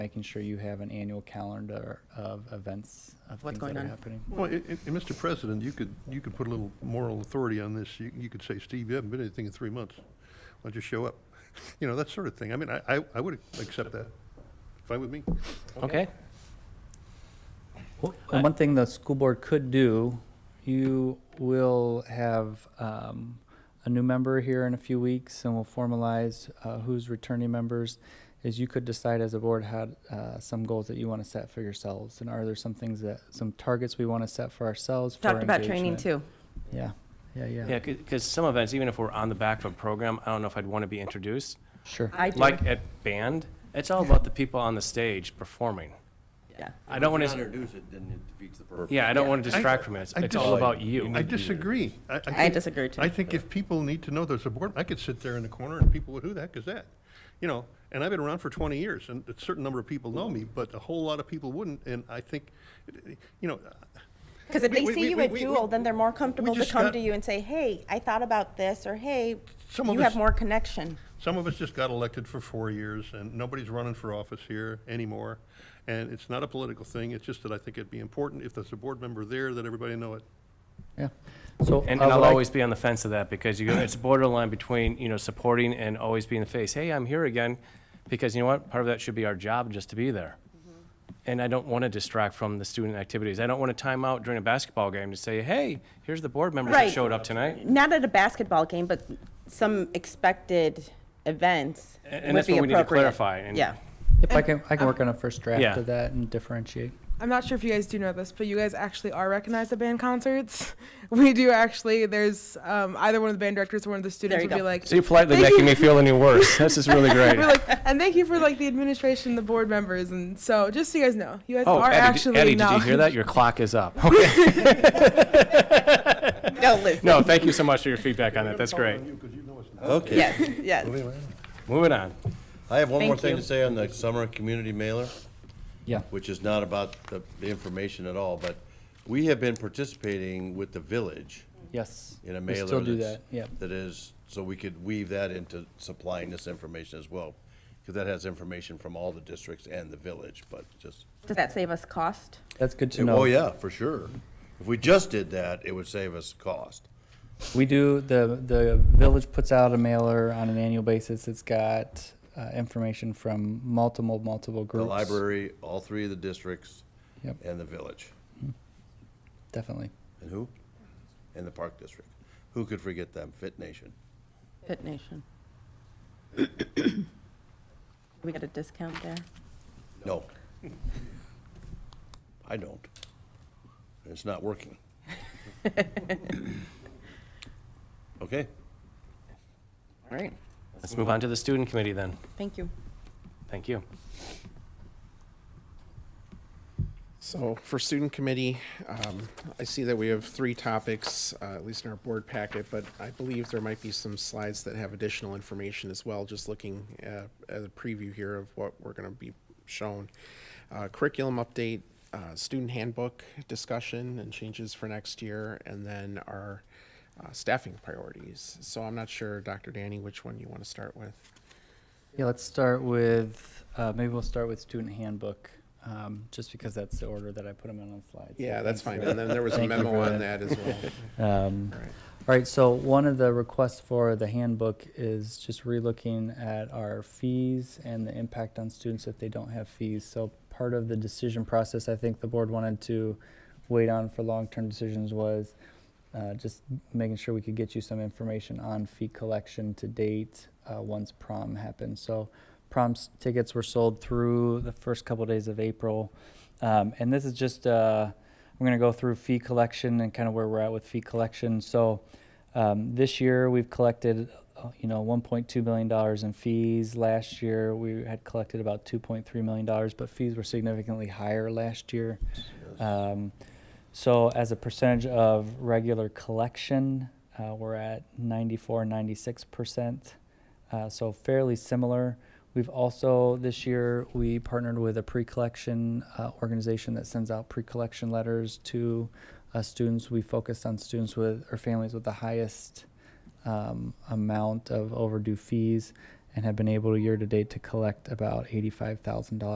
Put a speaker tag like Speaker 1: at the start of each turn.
Speaker 1: making sure you have an annual calendar of events of
Speaker 2: What's
Speaker 1: things that
Speaker 2: going
Speaker 1: are
Speaker 2: on?
Speaker 1: happening.
Speaker 3: Well, and, and- and Mr. President, you could, you could put a little moral authority on this. You, you could say, Steve, you haven't been anything in three months. Why don't you show up? You know, that sort of thing. I mean, I, I, I would accept that. Fine with me.
Speaker 4: Okay. Well,
Speaker 1: And one thing the school board could do, you will have um, a new member here in a few weeks, and we'll formalize uh, who's returning members. Is you could decide as a board how uh, some goals that you want to set for yourselves, and are there some things that some targets we want to set for ourselves? for
Speaker 2: Talked about training
Speaker 1: engagement?
Speaker 2: too.
Speaker 1: Yeah, yeah, yeah.
Speaker 4: Yeah, because some events, even if we're on the back of a program, I don't know if I'd want to be introduced.
Speaker 1: Sure.
Speaker 2: I do.
Speaker 4: Like at band, it's all about the people on the stage performing.
Speaker 2: Yeah.
Speaker 4: I don't want
Speaker 5: If you
Speaker 4: to,
Speaker 5: introduce it, then it defeats the purpose.
Speaker 4: yeah, I don't want to
Speaker 3: I-
Speaker 4: distract from it. It's-
Speaker 3: I
Speaker 4: It's
Speaker 3: dis-
Speaker 4: all about you.
Speaker 3: I disagree.
Speaker 2: I
Speaker 3: think-
Speaker 2: disagree, too.
Speaker 3: I think if people need to know there's a board, I could sit there in the corner and people would, who the heck is that? You know, and I've been around for twenty years and a certain number of people know me, but a whole lot of people wouldn't. And I think, you know,
Speaker 6: Because if
Speaker 3: We-
Speaker 6: they
Speaker 3: we-
Speaker 6: see you
Speaker 3: we-
Speaker 6: at
Speaker 3: we-
Speaker 6: Jewel, then they're more comfortable to
Speaker 3: just
Speaker 6: come
Speaker 3: got-
Speaker 6: to you and say, hey, I thought about this, or hey,
Speaker 3: Some of
Speaker 6: you have
Speaker 3: us-
Speaker 6: more connection.
Speaker 3: Some of us just got elected for four years, and nobody's running for office here anymore. And it's not a political thing, it's just that I think it'd be important if there's a board member there, that everybody know it.
Speaker 1: Yeah. So
Speaker 4: And
Speaker 1: I
Speaker 4: and
Speaker 1: would
Speaker 4: I'll
Speaker 1: like-
Speaker 4: always be on the fence of that because you, it's borderline between, you know, supporting and always being the face. Hey, I'm here again. Because you know what? Part of that should be our job just to be there. And I don't want to distract from the student activities. I don't want to time out during a basketball game to say, hey, here's the board members that
Speaker 6: Right.
Speaker 4: showed up tonight.
Speaker 6: Not at a basketball game, but some expected events
Speaker 4: A- and
Speaker 6: would
Speaker 4: that's
Speaker 6: be
Speaker 4: what we need to
Speaker 6: appropriate.
Speaker 4: clarify, and-
Speaker 6: Yeah.
Speaker 1: If I can, I can work on a first draft
Speaker 4: Yeah.
Speaker 1: of that and differentiate.
Speaker 7: I'm not sure if you guys do know this, but you guys actually are recognized at band concerts. We do actually. There's um, either one of the band directors or one of the students
Speaker 6: you
Speaker 7: would be
Speaker 6: go.
Speaker 7: like,
Speaker 4: So you're politely
Speaker 7: "Thank
Speaker 4: making
Speaker 7: you."
Speaker 4: me feel any worse. This is really great.
Speaker 7: We're like, and thank you for like the administration, the board members, and so just so you guys know, you guys
Speaker 4: Oh,
Speaker 7: are
Speaker 4: Eddie,
Speaker 7: actually
Speaker 4: did- Eddie, did you hear that?
Speaker 7: acknowledged.
Speaker 4: Your clock is up. Okay.
Speaker 6: No, listen,
Speaker 4: No, thank you so much for your feedback on that. That's great.
Speaker 5: Okay.
Speaker 6: yes, yes.
Speaker 4: Moving on.
Speaker 5: I have one more
Speaker 6: Thank
Speaker 5: thing to
Speaker 6: you.
Speaker 5: say on the summer community mailer,
Speaker 1: Yeah.
Speaker 5: which is not about the the information at all, but we have been participating with the village
Speaker 1: Yes.
Speaker 5: in a
Speaker 1: We
Speaker 5: mailer.
Speaker 1: still do
Speaker 5: that's-
Speaker 1: that. Yeah.
Speaker 5: That is, so we could weave that into supplying this information as well, because that has information from all the districts and the village, but just.
Speaker 6: Does that save us cost?
Speaker 1: That's good to know.
Speaker 5: Oh, yeah, for sure. If we just did that, it would save us cost.
Speaker 1: We do, the, the village puts out a mailer on an annual basis. It's got uh, information from multiple, multiple
Speaker 5: The
Speaker 1: groups.
Speaker 5: library, all three of the districts,
Speaker 1: Yep.
Speaker 5: and the village.
Speaker 1: Definitely.
Speaker 5: And who? And the Park District. Who could forget them? Fit Nation.
Speaker 6: Pit Nation. We got a discount there?
Speaker 5: No. I don't. It's not working. Okay.
Speaker 6: All right,
Speaker 4: Let's move on to the student committee then.
Speaker 6: thank you.
Speaker 4: Thank you.
Speaker 8: So for student committee, um, I see that we have three topics, uh, at least in our board packet, but I believe there might be some slides that have additional information as well, just looking uh, at a preview here of what we're gonna be shown. Uh, curriculum update, uh, student handbook discussion and changes for next year, and then our uh, staffing priorities. So I'm not sure, Dr. Danny, which one you wanna start with?
Speaker 1: Yeah, let's start with, uh, maybe we'll start with student handbook, um, just because that's the order that I put them in on the slides. So
Speaker 8: Yeah,
Speaker 1: thanks
Speaker 8: that's fine,
Speaker 1: for
Speaker 8: and then there was a
Speaker 1: Thank you
Speaker 8: memo
Speaker 1: for
Speaker 8: on
Speaker 1: that.
Speaker 8: that as well.
Speaker 1: Um,
Speaker 8: Right.
Speaker 1: all right, so one of the requests for the handbook is just relooking at our fees and the impact on students if they don't have fees. So part of the decision process, I think the board wanted to wait on for long-term decisions was uh, just making sure we could get you some information on fee collection to date uh, once prom happened. So prom s- tickets were sold through the first couple days of April. Um, and this is just, uh, I'm going to go through fee collection and kind of where we're at with fee collection. So um, this year we've collected, uh, you know, 1.2 million dollars in fees. Last year we had collected about 2.3 million dollars, but fees were significantly higher last year. Um, so as a percentage of regular collection, uh, we're at 94, 96 percent. Uh, so fairly similar. We've also this year we partnered with a pre-collection uh, organization that sends out pre-collection letters to uh, students. We focused on students with or families with the highest um, amount of overdue fees, and have been able year to date to collect about eighty-five thousand dollars.